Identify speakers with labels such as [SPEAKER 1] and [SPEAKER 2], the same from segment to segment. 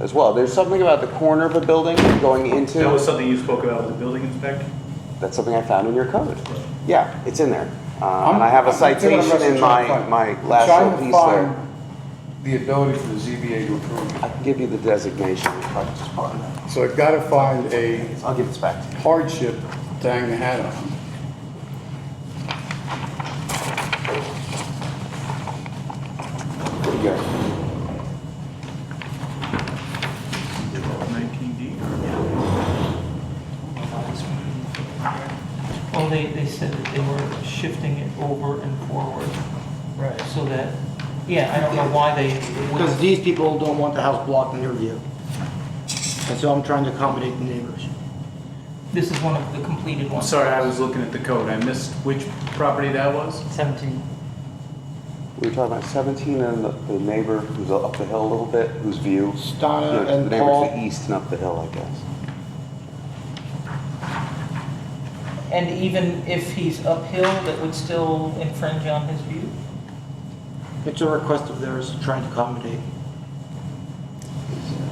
[SPEAKER 1] as well. There's something about the corner of a building going
[SPEAKER 2] That was
[SPEAKER 1] into,
[SPEAKER 2] something you spoke about with the building inspector?
[SPEAKER 1] that's something I found in your code. Yeah, it's in there. Uh,
[SPEAKER 3] I'm-
[SPEAKER 1] and I have a
[SPEAKER 3] I'm thinking what I'm
[SPEAKER 1] citation in
[SPEAKER 3] trying to
[SPEAKER 1] my,
[SPEAKER 3] find.
[SPEAKER 1] my
[SPEAKER 3] I'm trying
[SPEAKER 1] last
[SPEAKER 3] to
[SPEAKER 1] little piece there.
[SPEAKER 3] find The ability for the ZBA to approve.
[SPEAKER 1] I can give you the designation. if I just part of that.
[SPEAKER 3] So I've got to find a
[SPEAKER 1] I'll give this back to you.
[SPEAKER 3] hardship to hang the hat on.
[SPEAKER 1] There you go.
[SPEAKER 2] 19D?
[SPEAKER 4] Well, they, they said that they were shifting it over and forward. Right. So that, yeah, I don't know why they
[SPEAKER 5] Because
[SPEAKER 4] would,
[SPEAKER 5] these people don't want the house blocked in their view. And so I'm trying to accommodate the neighbors.
[SPEAKER 4] this is one of the completed
[SPEAKER 2] I'm
[SPEAKER 4] ones.
[SPEAKER 2] sorry, I was looking at the code. I missed which property that was?
[SPEAKER 4] 17.
[SPEAKER 1] We were talking about 17 and the- the neighbor who's up the hill a little bit, whose view.
[SPEAKER 5] Stana
[SPEAKER 1] The
[SPEAKER 5] and
[SPEAKER 1] neighbor to the
[SPEAKER 5] Paul,
[SPEAKER 1] east and up the hill, I guess.
[SPEAKER 4] And even if he's uphill, that would still infringe on his view?
[SPEAKER 5] it's a request of theirs, trying to accommodate.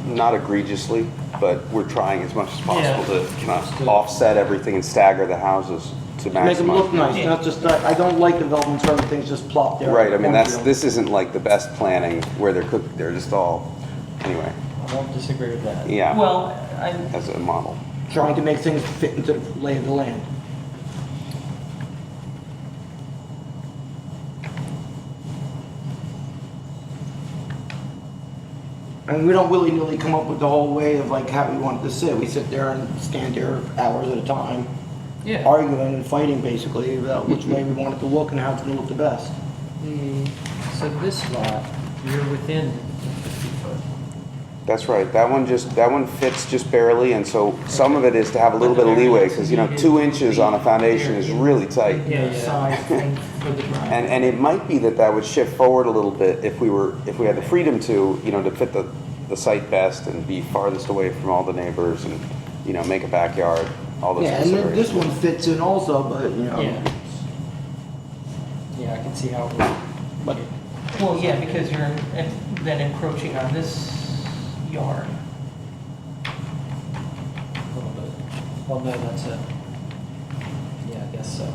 [SPEAKER 1] Not egregiously, but we're trying as much as possible
[SPEAKER 4] Yeah.
[SPEAKER 1] to kind of offset everything and stagger the houses to
[SPEAKER 5] Make them look
[SPEAKER 1] maximize.
[SPEAKER 5] nice, not just, I I don't like developments where everything's just plopped there.
[SPEAKER 1] Right, I mean, that's,
[SPEAKER 5] One view.
[SPEAKER 1] this isn't like the best planning where they're cooked, they're just all, anyway,
[SPEAKER 6] I won't disagree with that.
[SPEAKER 1] yeah,
[SPEAKER 4] Well, I,
[SPEAKER 1] as a model.
[SPEAKER 5] Trying to make things fit into the lay of the land. And we don't willy-nilly come up with the whole way of like how we want it to sit. We sit there and stand there hours at a time.
[SPEAKER 4] yeah,
[SPEAKER 5] arguing and fighting basically about which way we want it to look and how it's gonna look the best.
[SPEAKER 6] The- So this lot, you're within the 50 foot.
[SPEAKER 1] That's right, that one just, that one fits just barely, and so some of it is to have a little bit of leeway, because, you know, two inches on a foundation is really tight.
[SPEAKER 6] Yeah, yeah.
[SPEAKER 4] side thing for the drive.
[SPEAKER 1] And, and it might be that that would shift forward a little bit if we were, if we had the freedom to, you know, to fit the, the site best and be farthest away from all the neighbors and, you know, make a backyard, all those
[SPEAKER 5] Yeah, and then this
[SPEAKER 1] considerations.
[SPEAKER 5] one fits in also, but you know,
[SPEAKER 6] Yeah. Yeah, I can see how it would.
[SPEAKER 5] But-
[SPEAKER 4] Well, yeah, because you're en- then encroaching on this yard.
[SPEAKER 6] A little bit. Well, no, that's a, yeah, I guess so.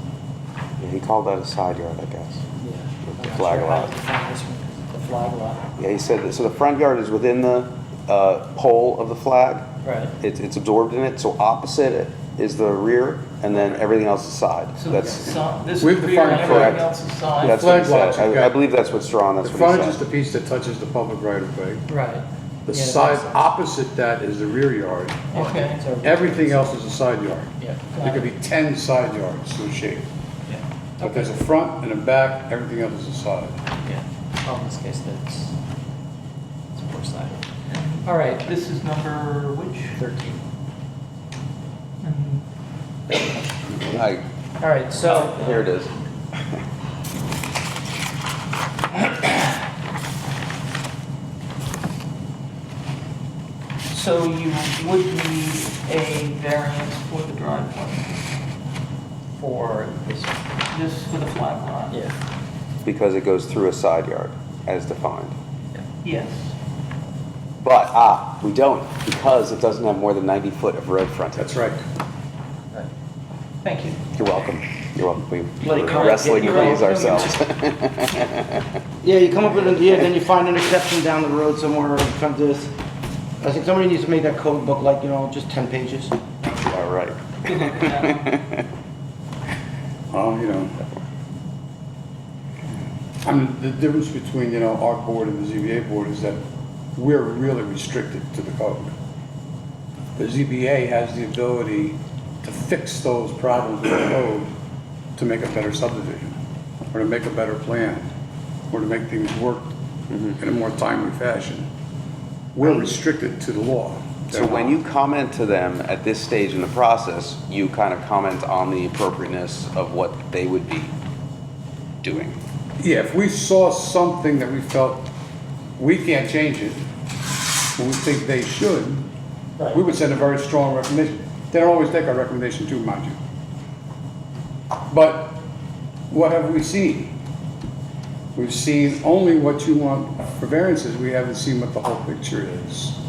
[SPEAKER 1] Yeah, He called that a side yard, I guess.
[SPEAKER 6] Yeah. I'm not
[SPEAKER 1] Flag
[SPEAKER 6] sure how
[SPEAKER 1] lot.
[SPEAKER 6] to define this one. The flag lot,
[SPEAKER 1] Yeah, he said that, so the front yard is within the, uh, pole of the flag.
[SPEAKER 6] right.
[SPEAKER 1] It's, it's absorbed in it, so opposite it is the rear, and then everything else is side.
[SPEAKER 4] So this
[SPEAKER 1] That's,
[SPEAKER 4] is on- this
[SPEAKER 3] With the
[SPEAKER 4] rear and
[SPEAKER 3] front
[SPEAKER 4] everything
[SPEAKER 1] correct.
[SPEAKER 4] else is side.
[SPEAKER 1] that's what he
[SPEAKER 3] Flag lots,
[SPEAKER 1] said.
[SPEAKER 3] you've
[SPEAKER 1] I, I
[SPEAKER 3] got-
[SPEAKER 1] believe that's what's drawn,
[SPEAKER 3] The
[SPEAKER 1] that's what
[SPEAKER 3] frontage
[SPEAKER 1] he
[SPEAKER 3] is the
[SPEAKER 1] said.
[SPEAKER 3] piece that touches the public right of way.
[SPEAKER 6] Right.
[SPEAKER 3] The
[SPEAKER 6] Yeah, that
[SPEAKER 3] side
[SPEAKER 6] makes sense.
[SPEAKER 3] opposite that is the rear yard.
[SPEAKER 4] Okay.
[SPEAKER 6] So-
[SPEAKER 3] Everything else is a side yard.
[SPEAKER 6] Yeah.
[SPEAKER 3] There could be 10 side yards to a shape.
[SPEAKER 6] Yeah.
[SPEAKER 3] But there's a front and a back, everything else is a side.
[SPEAKER 6] Yeah. Well, in this case, that's, it's poor side. All right,
[SPEAKER 4] This is number which?
[SPEAKER 6] 13.
[SPEAKER 4] Mm,
[SPEAKER 1] Like,
[SPEAKER 6] All right, so.
[SPEAKER 1] here it is.
[SPEAKER 4] So you would need a variance for the driveway,
[SPEAKER 6] For this one.
[SPEAKER 4] just for the flag lot?
[SPEAKER 6] Yeah.
[SPEAKER 1] because it goes through a side yard as defined.
[SPEAKER 4] Yes.
[SPEAKER 1] But, ah, we don't, because it doesn't have more than 90 foot of road frontage.
[SPEAKER 3] That's right.
[SPEAKER 6] Right.
[SPEAKER 4] Thank you.
[SPEAKER 1] You're welcome. You're welcome. We-
[SPEAKER 5] Let it
[SPEAKER 1] We're
[SPEAKER 5] come.
[SPEAKER 1] wrestling
[SPEAKER 5] You're
[SPEAKER 1] these
[SPEAKER 4] welcome.
[SPEAKER 1] ourselves.
[SPEAKER 5] yeah, you come up with an idea, then you find an exception down the road somewhere and come to this. I think somebody needs to make that code book like, you know, just ten pages.
[SPEAKER 1] All right.
[SPEAKER 4] Good luck with that.
[SPEAKER 3] Well, you know. I mean, the difference between, you know, our board and the ZBA board is that we're really restricted to the code. The ZBA has the ability to fix those problems with the code to make a better subdivision, or to make a better plan, or to make things work
[SPEAKER 1] Mm-hmm.
[SPEAKER 3] in a more timely fashion. We're restricted to the law.
[SPEAKER 1] So when you comment to them at this stage in the process, you kind of comment on the appropriateness of what they would be doing.
[SPEAKER 3] Yeah, if we saw something that we felt we can't change it, but we think they should, we would send a very strong recommendation. They don't always take our recommendation too, mind you. But what have we seen? We've seen only what you want for variances, we haven't seen what the whole picture is.